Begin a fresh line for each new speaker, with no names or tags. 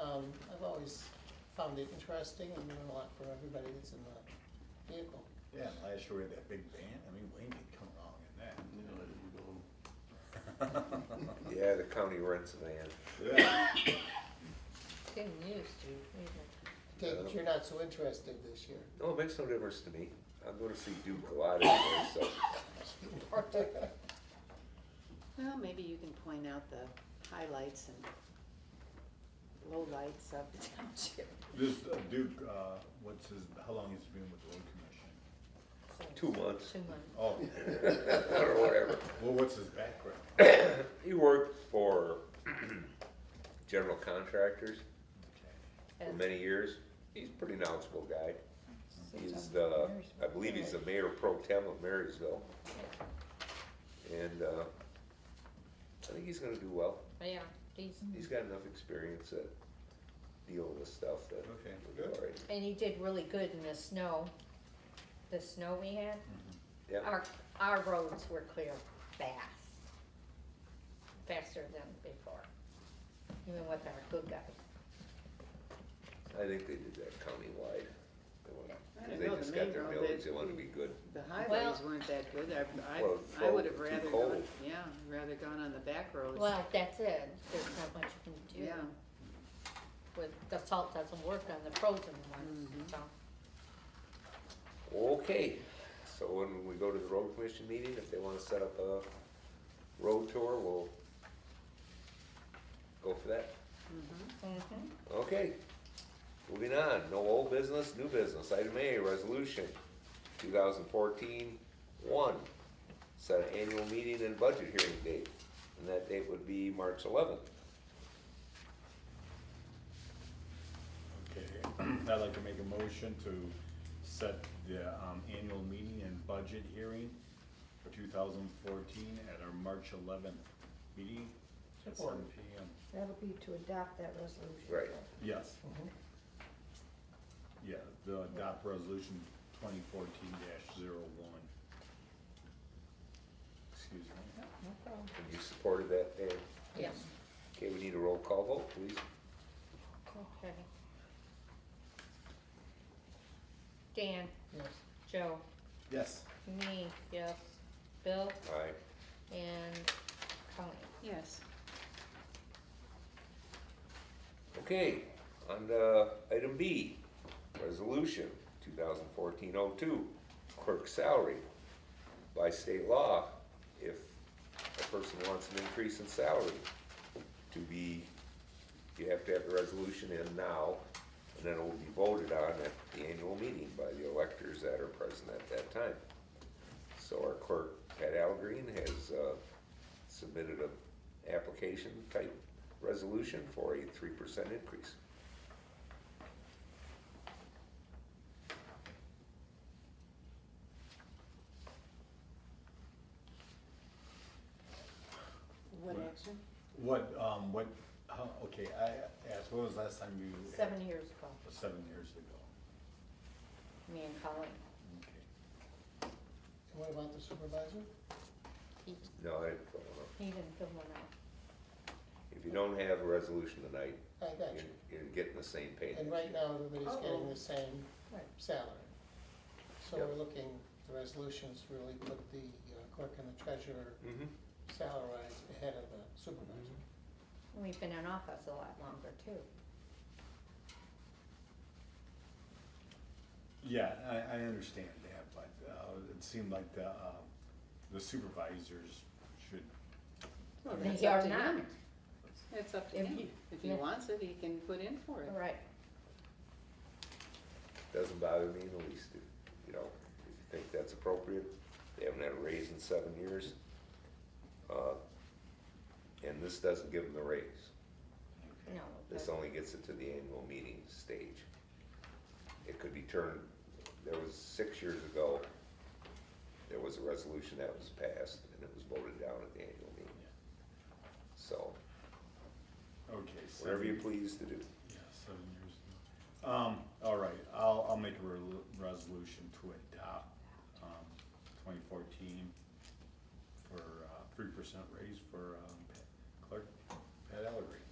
um, I've always found it interesting and meant a lot for everybody that's in the vehicle.
Yeah, and last year we had that big band, I mean, Wayne did come wrong in that.
You know, you go,
Yeah, the county rents a van.
Yeah.
Getting used to, even.
Take it you're not so interested this year.
No, it makes no difference to me. I'm gonna see Duke a lot anyway, so.
Well, maybe you can point out the highlights and lowlights of the township.
This uh, Duke, uh, what's his, how long has he been with the road commission?
Two months
Two months.
Oh,
or whatever.
well, what's his background?
He worked for general contractors
Okay.
for
And-
many years. He's a pretty knowledgeable guy. He's
Sometimes
the,
mayor's-
I believe he's the mayor pro tem of Marysville. And, uh, I think he's gonna do well.
Yeah, he's,
He's got enough experience to deal with stuff that.
Okay.
we'll be all right.
and he did really good in the snow, the snow we had.
Yeah,
Our, our roads were clear fast, faster than before, even with our good guy.
I think they did that countywide. They wanna-
I don't
They
know, the
just got
main
their
road,
millings,
they-
they wanna be good.
The highways weren't that good. I,
Well,
I, I would have
too
rather
cold.
gone, yeah, rather gone on the back roads.
Well, that's it, there's not much you can do.
Yeah,
With, the salt doesn't work on the frozen ones, so.
Okay, so when we go to the road commission meeting, if they wanna set up a road tour, we'll go for that.
Mm-hmm.
Okay, moving on, no old business, new business, item A, resolution 2014-1. set an annual meeting and budget hearing date, and that date would be March eleventh.
Okay, I'd like to make a motion to set the um, annual meeting and budget hearing for 2014 at our March 11th meeting at
Support.
7 PM.
That'll be to adopt that resolution.
Right.
Yes. Yeah, the adopt resolution 2014-01. Excuse me.
And you supported that, Dan?
Yes.
Okay, we need a roll call vote, please.
Okay. Dan,
Yes,
Joe,
Yes.
me, yes, Bill,
Aye.
and Colleen.
yes.
Okay, on to item B, resolution 2014-02, clerk salary. By state law, if a person wants an increase in salary, to be, you have to have the resolution in now, and then it will be voted on at the annual meeting by the electors that are present at that time. So our clerk, Pat Algreen, has uh, submitted a application type resolution for a three percent increase.
What action?
What, um, what, how, okay, I asked, what was the last time you? had-
Seven years ago,
Seven years ago.
me and Colleen.
Okay.
and what about the supervisor?
He,
No, I don't know.
he didn't fill one out.
If you don't have a resolution tonight,
I got
you're,
you.
you're getting the same page.
And right now, everybody's getting the same
Right.
salary. So we're
Yep.
looking, the resolutions really put the uh, clerk and the treasurer
Mhm.
salaries ahead of the supervisor.
And We've been in office a lot longer too.
Yeah, I, I understand that, but, uh, it seemed like the, um, the supervisors should,
Well, that's
They
up
are
to
not,
him. That's up to
If
him.
he-
If he
yeah.
wants it, he can put in for it.
right.
Doesn't bother me in the least, if, you know, if you think that's appropriate. They haven't had a raise in seven years. Uh, And this doesn't give them the raise.
No.
This
but-
only gets it to the annual meeting stage. It could be turned, there was, six years ago, there was a resolution that was passed, and it was voted down at the annual meeting.
yeah,
So,
okay. so-
whatever you please to do.
Yeah, seven years ago. Um, all right, I'll, I'll make a re- resolution to adopt, um, twenty fourteen for, uh, three percent raise for, um, Pat- clerk Pat Ellery.